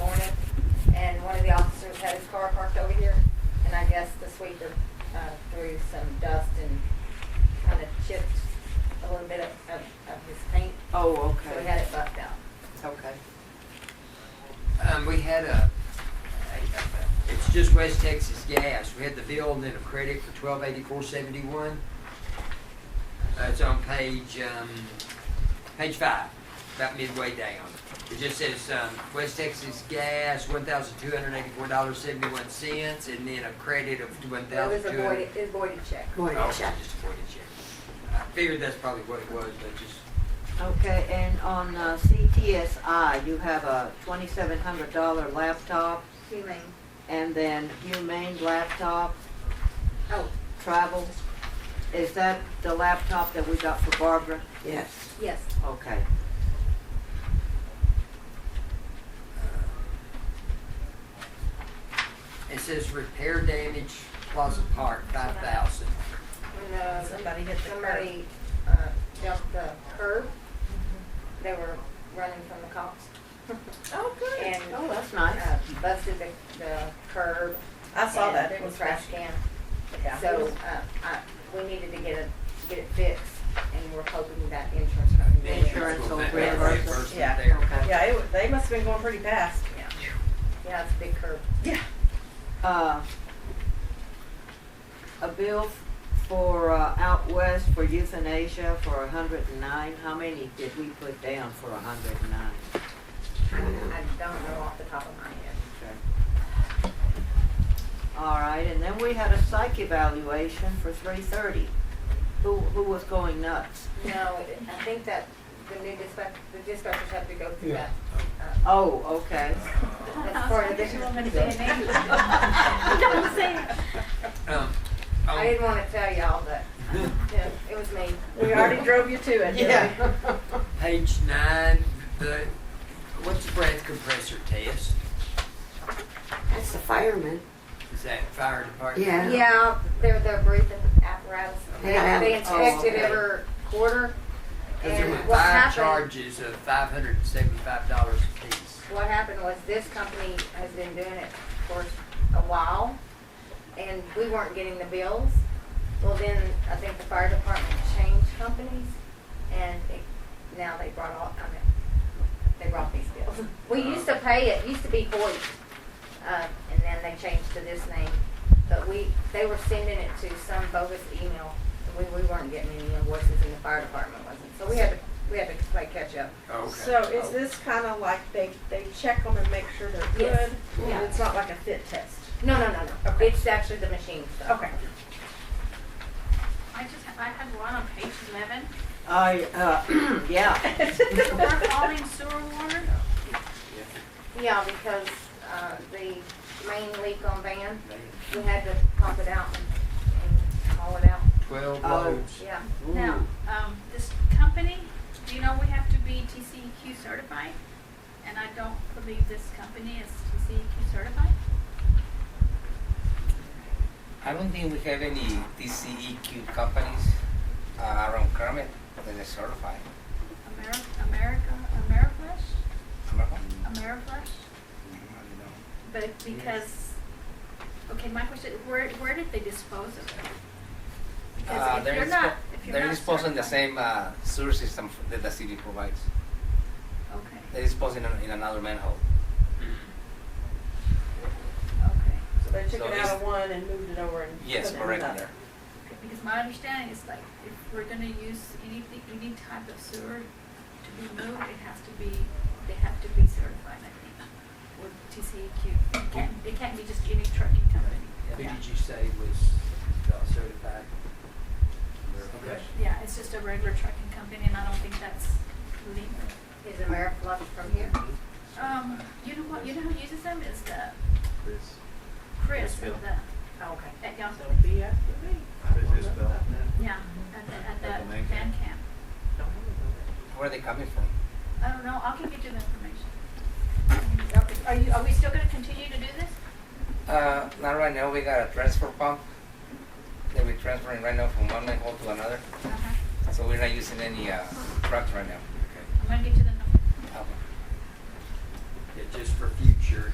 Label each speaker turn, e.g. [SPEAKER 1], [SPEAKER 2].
[SPEAKER 1] car parked over here, and I guess the sweeper uh, threw some dust and kind of chipped a little bit of, of, of his paint,
[SPEAKER 2] Oh,
[SPEAKER 1] so we
[SPEAKER 2] okay.
[SPEAKER 1] had it buffed out.
[SPEAKER 2] Okay.
[SPEAKER 3] Um, we had a, a- it's just West Texas Gas. We had the bill and then a credit for twelve eighty-four seventy-one. Uh, it's on page, um, page five, about midway down. It just says, um, West Texas Gas, one thousand two hundred eighty-four dollars seventy-one cents, and then a credit of one
[SPEAKER 1] It was
[SPEAKER 3] thousand
[SPEAKER 1] a
[SPEAKER 3] two hundred. Oh,
[SPEAKER 1] voided, it was voided check.
[SPEAKER 2] Voided check.
[SPEAKER 3] Just a voided check. I figured that's probably what it was, but just,
[SPEAKER 2] Okay, and on uh, CTSI, you have a twenty-seven hundred dollar laptop
[SPEAKER 1] Humane,
[SPEAKER 2] and then Humane laptop,
[SPEAKER 1] oh,
[SPEAKER 2] travel. Is that the laptop that we got for Barbara? Yes.
[SPEAKER 1] yes,
[SPEAKER 2] Okay.
[SPEAKER 3] it says repair damage Plaza Park, five thousand.
[SPEAKER 1] when uh,
[SPEAKER 4] Somebody hit the curb.
[SPEAKER 1] Somebody uh, jumped the curb, they were running from the cops.
[SPEAKER 4] Oh, good.
[SPEAKER 1] And,
[SPEAKER 2] Oh, that's nice.
[SPEAKER 1] uh, Busted the, the curb.
[SPEAKER 4] I saw
[SPEAKER 1] and
[SPEAKER 4] that.
[SPEAKER 1] It was trash can.
[SPEAKER 4] Yeah.
[SPEAKER 1] So, uh, I, we needed to get it, get it fixed, and we're hoping that insurance company. will-
[SPEAKER 2] Insurance will reimburse us.
[SPEAKER 4] Yeah.
[SPEAKER 3] there.
[SPEAKER 2] Okay.
[SPEAKER 4] Yeah, it, wa- they must have been going pretty fast.
[SPEAKER 1] Yeah, Yeah, it's a big curb.
[SPEAKER 4] Yeah.
[SPEAKER 2] Uh, A bill for uh, Out West for euthanasia for a hundred and nine. How many did we put down for a hundred and nine?
[SPEAKER 1] I, I don't know off the top of my head.
[SPEAKER 2] All right, and then we had a psych evaluation for three thirty. Who, who was going nuts?
[SPEAKER 1] No, it- I think that the new dispatch, the dispatchers have to go through that. uh,
[SPEAKER 2] Oh, okay.
[SPEAKER 1] That's part of the,
[SPEAKER 4] Don't say
[SPEAKER 3] Um,
[SPEAKER 1] I
[SPEAKER 3] on-
[SPEAKER 1] didn't wanna tell y'all, but, yeah, it was me.
[SPEAKER 4] We already drove you to it. didn't we?
[SPEAKER 3] Page nine, the, what's the breath compressor test?
[SPEAKER 5] That's the fireman.
[SPEAKER 3] Is that fire department?
[SPEAKER 5] Yeah.
[SPEAKER 1] Yeah, they're, they're breathing apparatus. They,
[SPEAKER 5] Yeah.
[SPEAKER 1] they
[SPEAKER 2] Oh,
[SPEAKER 1] inspect it
[SPEAKER 2] okay.
[SPEAKER 1] every quarter.
[SPEAKER 3] Cause there
[SPEAKER 1] And
[SPEAKER 3] were
[SPEAKER 1] what
[SPEAKER 3] five
[SPEAKER 1] happened,
[SPEAKER 3] charges of five hundred and seventy-five dollars apiece.
[SPEAKER 1] what happened was this company has been doing it for a while, and we weren't getting the bills. Well, then, I think the fire department changed companies, and it, now they brought all, I mean, they brought these bills. We used to pay it, used to be Hoyt, uh, and then they changed to this name. But we, they were sending it to some bogus email, and we, we weren't getting any invoices, and the fire department wasn't. So we had to, we had to play catch-up.
[SPEAKER 3] Oh, Okay.
[SPEAKER 4] So is this kind of like they, they check them and make sure they're
[SPEAKER 1] Yes.
[SPEAKER 4] good?
[SPEAKER 1] Yeah.
[SPEAKER 4] It's not like a fit test?
[SPEAKER 1] No, no, no, no.
[SPEAKER 4] Okay.
[SPEAKER 1] It's actually the machine stuff.
[SPEAKER 4] Okay.
[SPEAKER 6] I just, I had one on page eleven,
[SPEAKER 2] I, uh, yeah,
[SPEAKER 6] we're calling sewer water,
[SPEAKER 1] Yeah, because, uh, the main leak on Van,
[SPEAKER 3] They had
[SPEAKER 1] we had to pump it out and and haul it out,
[SPEAKER 3] Twelve
[SPEAKER 2] Oh.
[SPEAKER 3] loads.
[SPEAKER 1] yeah.
[SPEAKER 6] now, um, this company, do you know we have to be TCEQ certified? And I don't believe this company is TCEQ certified,
[SPEAKER 7] I don't think we have any TCEQ companies uh, around Kermit that are certified.
[SPEAKER 6] Ameri- America, Ameriflush,
[SPEAKER 7] Remember?
[SPEAKER 6] Ameriflush? Mm-hmm.
[SPEAKER 7] I
[SPEAKER 6] But because, okay, my question, where, where did they dispose of it?
[SPEAKER 7] don't know.
[SPEAKER 6] Because
[SPEAKER 7] Uh,
[SPEAKER 6] if
[SPEAKER 7] they're
[SPEAKER 6] you're
[SPEAKER 7] dispo-
[SPEAKER 6] not, if you're
[SPEAKER 7] They're
[SPEAKER 6] not
[SPEAKER 7] disposing the
[SPEAKER 6] certified-
[SPEAKER 7] same uh, sewer system f- that the city provides.
[SPEAKER 6] Okay,
[SPEAKER 7] They're disposing in, in another manhole.
[SPEAKER 6] okay.
[SPEAKER 4] So they took
[SPEAKER 7] So
[SPEAKER 4] it
[SPEAKER 7] is-
[SPEAKER 4] out of one and moved it over and put it
[SPEAKER 7] Yes,
[SPEAKER 4] in
[SPEAKER 7] correct
[SPEAKER 4] another.
[SPEAKER 7] there.
[SPEAKER 6] Okay, Because my understanding is like, if we're gonna use anything, any type of sewer to be moved, it has to be, they have to be certified, I think, with TCEQ. E It can't, it can't be just any trucking company.
[SPEAKER 3] Who
[SPEAKER 6] Yeah.
[SPEAKER 3] did you say was not certified? Okay.
[SPEAKER 6] Yeah, it's just a regular trucking company, and I don't think that's legal.
[SPEAKER 1] Is Ameriflush from here?
[SPEAKER 4] Oh,
[SPEAKER 6] Um, you know what, you know who uses them? It's the. Chris. Chris at the,
[SPEAKER 1] Okay.
[SPEAKER 6] at y'all's,
[SPEAKER 4] Don't be after me.
[SPEAKER 8] Chris Isbell.
[SPEAKER 6] yeah, at the, at
[SPEAKER 8] At the
[SPEAKER 6] the
[SPEAKER 8] main
[SPEAKER 6] band
[SPEAKER 8] camp.
[SPEAKER 6] camp.
[SPEAKER 4] Don't worry about it.
[SPEAKER 7] Where are they coming from?
[SPEAKER 6] I don't know, I'll give you the information. Okay, Are you, are we still gonna continue to do this?
[SPEAKER 7] Uh, not right now. We got a transfer pump that we're transferring right now from one manhole to another.
[SPEAKER 6] Uh-huh.
[SPEAKER 7] So we're not using any uh, trucks right now.
[SPEAKER 6] I'm gonna get you the number.
[SPEAKER 7] Okay.
[SPEAKER 3] Yeah, just for future